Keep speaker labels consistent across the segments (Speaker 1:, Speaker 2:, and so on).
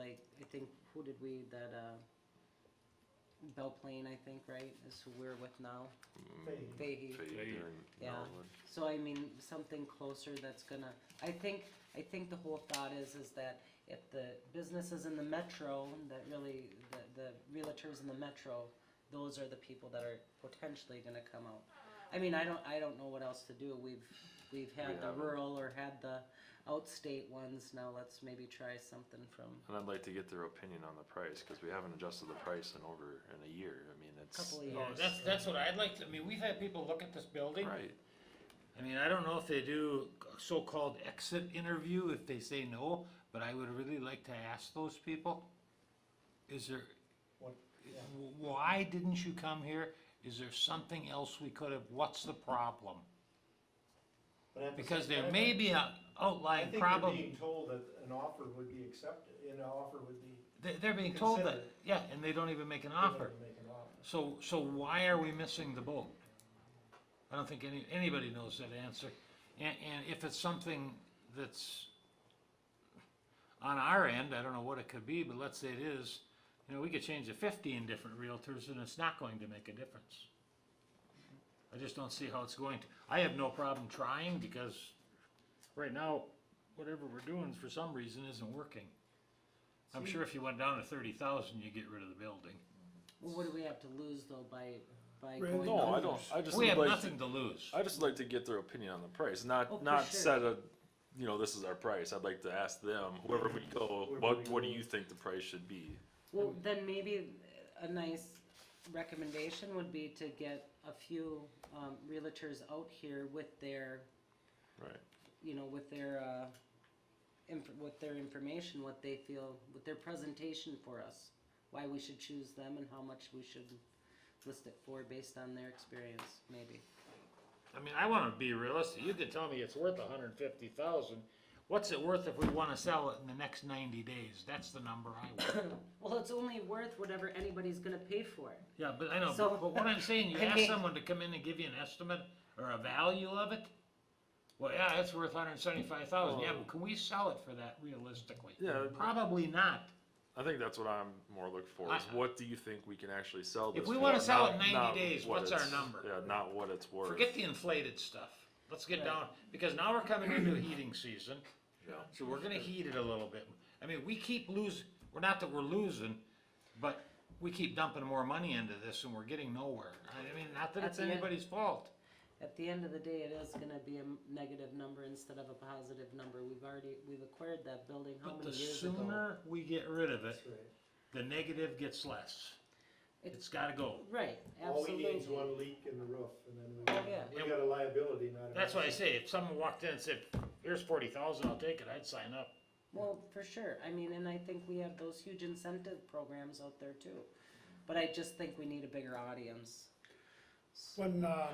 Speaker 1: I think, who did we, that, uh, Bell Plain, I think, right, is who we're with now,
Speaker 2: Faye.
Speaker 1: Fahey.
Speaker 3: Fade.
Speaker 1: Yeah. So I mean, something closer that's gonna, I think, I think the whole thought is, is that if the businesses in the metro, that really, the, the realtors in the metro, those are the people that are potentially gonna come out. I mean, I don't, I don't know what else to do, we've, we've
Speaker 3: We
Speaker 1: had the
Speaker 3: haven't.
Speaker 1: rural or had the outstate ones, now let's maybe try something from
Speaker 3: And I'd like to get their opinion on the price, cause we haven't adjusted the price in over, in a year, I mean,
Speaker 1: a
Speaker 3: it's,
Speaker 1: couple of years.
Speaker 4: No, Oh, that's, that's what I'd like to, I mean, we've had people look at this building.
Speaker 3: right,
Speaker 4: I mean, I don't know if they do a so-called exit interview, if they say no, but I would really like to ask those people. Is there,
Speaker 2: What, yeah.
Speaker 4: why didn't you come here? Is there something else we could have, what's the problem?
Speaker 2: But at the
Speaker 4: Because
Speaker 2: same
Speaker 4: there
Speaker 2: time,
Speaker 4: may be a
Speaker 2: I
Speaker 4: outlying
Speaker 2: think they're
Speaker 4: problem,
Speaker 2: being told that an offer would be accepted, an offer would be.
Speaker 4: they're, they're being told that,
Speaker 2: considered.
Speaker 4: yeah, and they don't even make an
Speaker 2: they're gonna
Speaker 4: offer.
Speaker 2: Make an offer.
Speaker 4: So, so why are we missing the boat? I don't think any, anybody knows that answer. And, and if it's something that's on our end, I don't know what it could be, but let's say it is, you know, we could change to fifteen different realtors and it's not going to make a difference. I just don't see how it's going to. I have no problem trying because right now, whatever we're doing for some reason isn't working. I'm sure if you went down to thirty thousand, you'd get rid of the building.
Speaker 1: Well, what do we have to lose though by, by
Speaker 2: Right,
Speaker 1: going?
Speaker 3: no, I don't,
Speaker 1: owners?
Speaker 3: I just
Speaker 4: We
Speaker 3: would
Speaker 4: have
Speaker 3: like, to-
Speaker 4: nothing to lose.
Speaker 3: I just like to get their opinion on the price,
Speaker 1: Oh,
Speaker 3: not,
Speaker 1: for
Speaker 3: not
Speaker 1: sure.
Speaker 3: set a, you know, this is our price, I'd like to ask them, whoever we go,
Speaker 2: Wherever
Speaker 3: what,
Speaker 2: we
Speaker 3: what do
Speaker 2: go.
Speaker 3: you think the price should be?
Speaker 1: Well, then maybe a nice recommendation would be to get a few, um, realtors out here with their,
Speaker 3: Right,
Speaker 1: you know, with their, uh, inf- with their information, what they feel, with their presentation for us. Why we should choose them and how much we should list it for based on their experience, maybe.
Speaker 4: I mean, I wanna be realistic, you can tell me it's worth a hundred and fifty thousand, what's it worth if we wanna sell it in the next ninety days, that's the number I want.
Speaker 1: Well, it's only worth whatever anybody's gonna pay for it.
Speaker 4: Yeah, but I know,
Speaker 1: So-
Speaker 4: but but what I'm saying, you
Speaker 1: I
Speaker 4: ask
Speaker 1: mean-
Speaker 4: someone to come in and give you an estimate or a value of it, well, yeah, it's worth hundred and seventy-five thousand,
Speaker 3: Oh.
Speaker 4: yeah, but can we sell it for that realistically?
Speaker 3: Yeah.
Speaker 4: Probably not,
Speaker 3: I think that's what I'm more looking for, is
Speaker 4: I-
Speaker 3: what do you think we can actually sell this
Speaker 4: If
Speaker 3: for?
Speaker 4: we wanna sell it
Speaker 3: not-
Speaker 4: 90
Speaker 3: not
Speaker 4: days,
Speaker 3: what
Speaker 4: what's our
Speaker 3: it's-
Speaker 4: number?
Speaker 3: Yeah, not what it's worth.
Speaker 4: forget the inflated stuff, let's get
Speaker 1: Right.
Speaker 4: down, because now we're coming into heating season.
Speaker 3: Yeah.
Speaker 4: So we're gonna heat it a little bit. I mean, we keep losing, we're not that we're losing, but we keep dumping more money into this and we're getting nowhere. I mean, not that it's
Speaker 1: At the end-
Speaker 4: anybody's fault.
Speaker 1: At the end of the day, it is gonna be a m- negative number instead of a positive number. We've already, we've acquired that building how
Speaker 4: But the
Speaker 1: many years ago?
Speaker 4: sooner we get rid of it,
Speaker 2: That's right.
Speaker 4: the negative gets less.
Speaker 1: It's-
Speaker 4: It's gotta go.
Speaker 1: Right,
Speaker 2: All we
Speaker 1: absolutely. Oh,
Speaker 2: need is one leak in the roof and then we,
Speaker 1: yeah.
Speaker 2: got- we got a liability, not a.
Speaker 4: That's why I say, if someone walked in and said, here's forty thousand, I'll take it, I'd sign up.
Speaker 1: Well, for sure, I mean, and I think we have those huge incentive programs out there too, but I just think we need a bigger audience.
Speaker 5: When uh,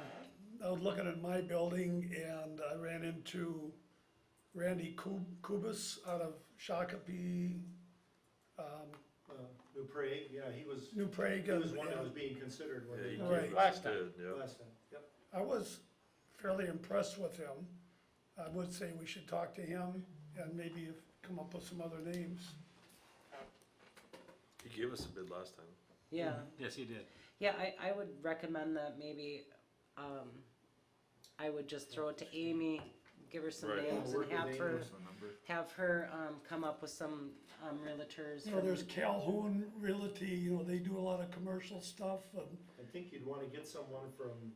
Speaker 5: I was looking at my building and I ran into Randy Kub- Kubus out of Shakopee,
Speaker 2: Uh, Dupre, yeah, he was,
Speaker 5: New Prague.
Speaker 2: he was
Speaker 5: and-
Speaker 2: one that was
Speaker 5: and
Speaker 2: being considered when
Speaker 3: Yeah, you
Speaker 2: they,
Speaker 3: gave
Speaker 5: Right.
Speaker 3: us
Speaker 4: Last
Speaker 3: a
Speaker 4: time.
Speaker 3: good, yeah.
Speaker 2: last time, yep.
Speaker 5: I was fairly impressed with him. I would say we should talk to him and maybe come up with some other names.
Speaker 3: You gave us a bid last time.
Speaker 1: Yeah,
Speaker 4: Yes, he did.
Speaker 1: yeah, I, I would recommend that maybe, um, I would just throw it to Amy, give her some
Speaker 3: Right.
Speaker 1: names
Speaker 2: Work
Speaker 1: and
Speaker 2: with
Speaker 1: have
Speaker 2: Amy.
Speaker 1: her, have her, um, come up with some, um, realtors.
Speaker 5: You know,
Speaker 1: from-
Speaker 5: there's Calhoun Realty, you know, they do a lot of commercial stuff and
Speaker 2: I think you'd wanna get someone from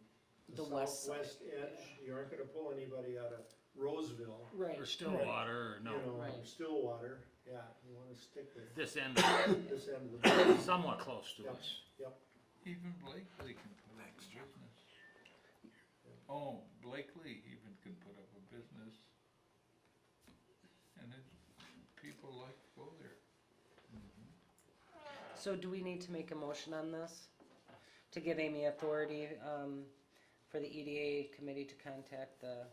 Speaker 2: the
Speaker 1: The west side.
Speaker 2: southwest edge, you aren't gonna pull anybody out of Roseville,
Speaker 1: Right,
Speaker 4: Or Stillwater, or
Speaker 2: you
Speaker 4: no,
Speaker 2: know, or
Speaker 1: Right.
Speaker 2: Stillwater, yeah, you wanna stick with
Speaker 4: this end of it,
Speaker 2: this end of the.
Speaker 4: somewhat close to
Speaker 2: Yep,
Speaker 4: us.
Speaker 2: yep.
Speaker 6: Even Blakely can put up a business. Oh, Blakely even can put up a business. And it, people like to go there.
Speaker 1: so do we need to make a motion on this? To give Amy authority, um, for the EDA committee to contact the,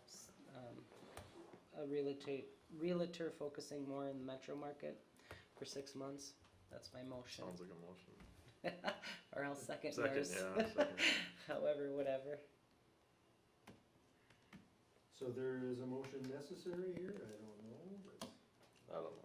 Speaker 1: um, a realtor, realtor focusing more in the metro market for six months? That's my motion,
Speaker 3: Sounds like a motion.
Speaker 1: or I'll second
Speaker 3: Second,
Speaker 1: yours.
Speaker 3: yeah, second.
Speaker 1: However, whatever.
Speaker 2: So there is a motion necessary here, I don't know, but
Speaker 3: I don't know.